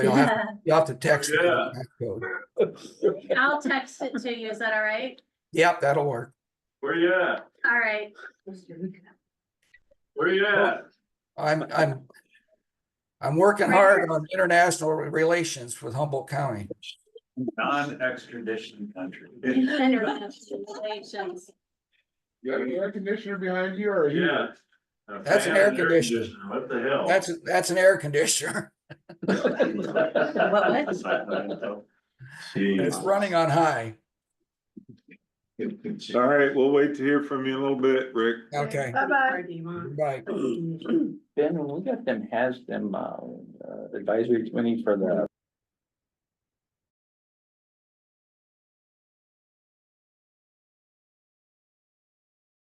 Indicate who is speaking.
Speaker 1: You'll have, you'll have to text. the
Speaker 2: Yeah.
Speaker 1: code.
Speaker 3: I'll text it to you, is that all right?
Speaker 1: Yep, that'll work.
Speaker 2: Where you at?
Speaker 3: All right,
Speaker 2: Where you at?
Speaker 1: I'm, I'm. I'm working hard on international relations with Humboldt County.
Speaker 2: Non-extradition country.
Speaker 3: congratulations.
Speaker 4: You got an air conditioner behind you or? are you-
Speaker 2: Yeah.
Speaker 1: That's an air conditioner.
Speaker 2: What the hell?
Speaker 1: That's, that's an air conditioner.
Speaker 2: What?
Speaker 1: It's running on high.
Speaker 5: All right, we'll wait to hear from you in a little bit, Rick.
Speaker 1: Okay, bye.
Speaker 6: Ben, when we got them, has them, uh, uh, advisory committee for the